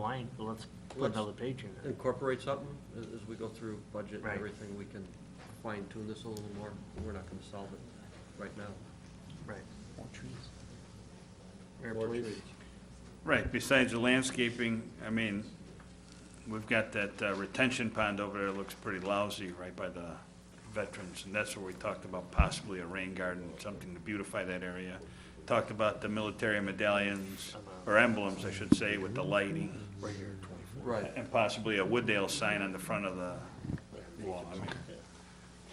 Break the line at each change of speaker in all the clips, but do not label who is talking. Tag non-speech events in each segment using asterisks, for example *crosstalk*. fine, but let's put
Let's-
another page in there.
incorporate something as, as we go through budget and
Right.
everything, we can fine tune this a little more. We're not gonna solve it right now.
Right.
More trees.
Mayor,
More
please.
trees.
Right, besides the landscaping, I mean, we've got that uh, retention pond over there, that looks pretty lousy right by the veterans, and that's where we talked about possibly a rain garden, something to beautify that area. Talked about the military medallions, or emblems, I should say, with the lighting,
Right here, twenty-four.
Right,
and possibly a Wooddale sign on the front of the wall. I mean,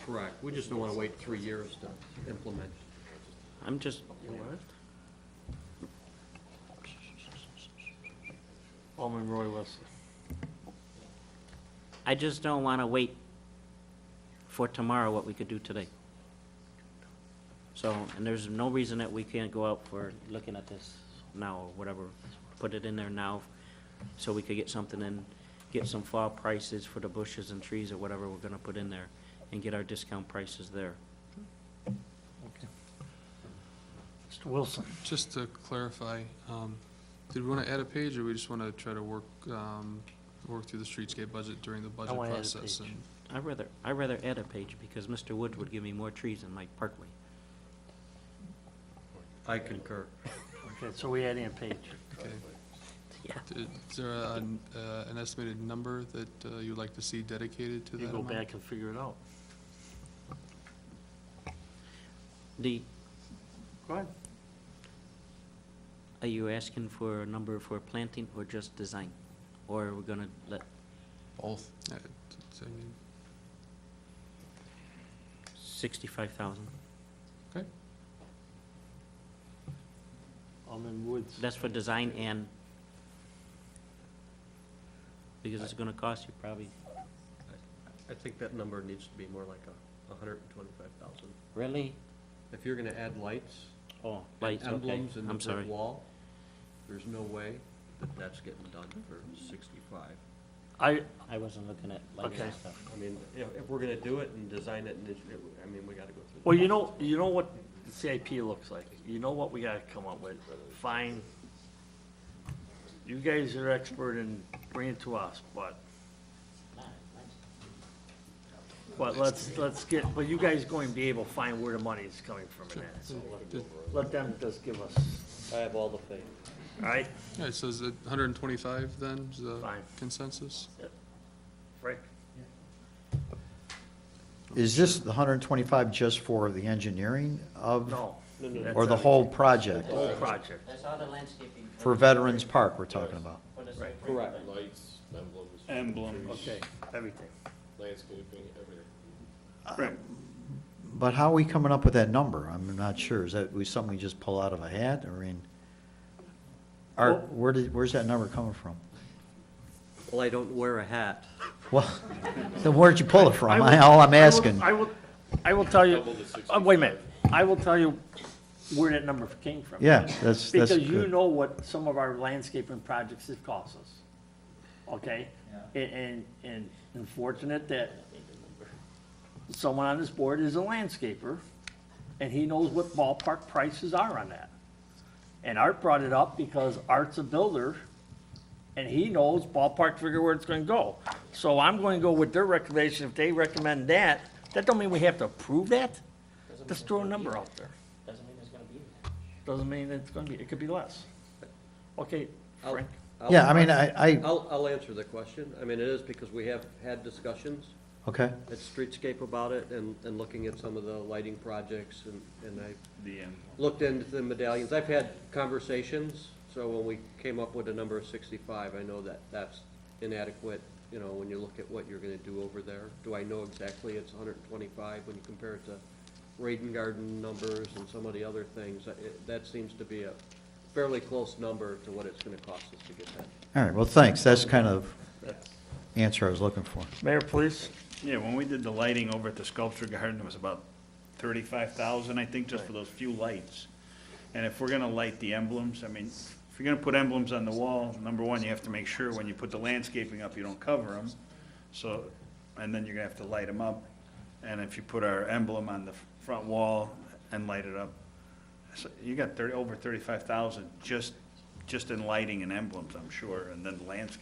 correct. We just don't wanna wait three years to implement.
I'm just,
You what? Alderman Roy Wilson.
I just don't want to wait for tomorrow what we could do today. So, and there's no reason that we can't go out for looking at this now or whatever, put it in there now so we could get something in, get some fall prices for the bushes and trees or whatever we're going to put in there and get our discount prices there.
Mr. Wilson.
Just to clarify, um, did we want to add a page, or we just want to try to work, um, work through the streetscape budget during the budget
wanna add a
process?
page.
and-
I'd rather, I'd rather add a page because Mr. Woods would give me more trees in my parkway.
I concur.
Okay, so we add in a page.
okay.
Yeah.
Did- Is there a- an uh, an estimated number that uh, you'd like to see dedicated to that
You go
amount?
back and figure it out.
The,
Go ahead.
Are you asking for a number for planting or just design? Or are we gonna let,
Both. Uh, t- so, I mean,
sixty-five thousand?
Okay,
Alderman Woods.
That's for design and, because it's gonna cost you probably,
I think that number needs to be more like a, a hundred and twenty-five thousand.
really?
If you're gonna add lights,
Oh,
and
lights, okay,
emblems in the
I'm sorry.
brick wall, there's no way that that's getting done for sixty-five.
I,
I wasn't looking at lights
Okay.
and stuff.
I mean, if, if we're gonna do it and design it, and it's- I mean, we gotta go through. the
well, you know,
process.
you know what the CIP looks like. You know what we gotta come up with. Fine. You guys are expert in bringing it to us, but, but let's, let's get, but you guys going to be able to find where the money is coming from in that. So
Did-
let them just give us,
I have all the faith.
all right?
All right, so is it 125 then, is the
Fine.
consensus?
Frank?
Is this the 125 just for the engineering of?
No.
Or the whole project?
Whole project.
That's all the landscaping.
For Veterans Park we're talking about?
Right.
Correct.
Lights, emblems,
Emblems.
Okay, everything.
landscaping, everything.
Right.
But how are we coming up with that number? I'm not sure. Is that we- something we just pull out of a hat? I mean, are,
Well-
where did, where's that number coming from?
Well, I don't wear a hat.
Well, *laughs* then where'd you pull it from? *laughs*
I will-
All
I
I'm
will-
asking.
I will, I will tell you,
Double the
uh, wait a minute, I will tell you where that number came from.
Yeah, that's, that's
Because you
good.
know what some of our landscaping projects have cost us, okay? And, and, and unfortunate that someone on this board is a landscaper, and he knows what ballpark prices are on that. And Art brought it up because Art's a builder, and he knows ballpark figure where it's gonna go. So I'm gonna go with their recommendation, if they recommend that, that don't mean we have to approve that, just throw a number out there.
Doesn't mean it's gonna be.
Doesn't mean it's gonna be, it could be less. Okay,
I'll-
Frank,
I'll-
Yeah, I mean, uh, I, I,
I'll, I'll answer the question. I mean, it is because we have had discussions
okay.
at Streetscape about it and, and looking at some of the lighting projects and, and I
The, um,
looked into the medallions. I've had conversations, so when we came up with a number of sixty-five, I know that that's inadequate, you know, when you look at what you're gonna do over there. Do I know exactly it's hundred and twenty-five when you compare it to Raiden Garden numbers and some of the other things? I- it- That seems to be a fairly close number to what it's gonna cost us to get that.
All right, well, thanks. That's kind of answer I was looking for.
Mayor, please.
Yeah, when we did the lighting over at the sculpture garden, it was about thirty-five thousand, I think, just for those few lights. And if we're gonna light the emblems, I mean, if you're gonna put emblems on the wall, number one, you have to make sure when you put the landscaping up, you don't cover them. So, and then you're gonna have to light them up. And if you put our emblem on the front wall and light it up, so you got thirty, over thirty-five thousand just, just in lighting and emblems, I'm sure, and then landscaping.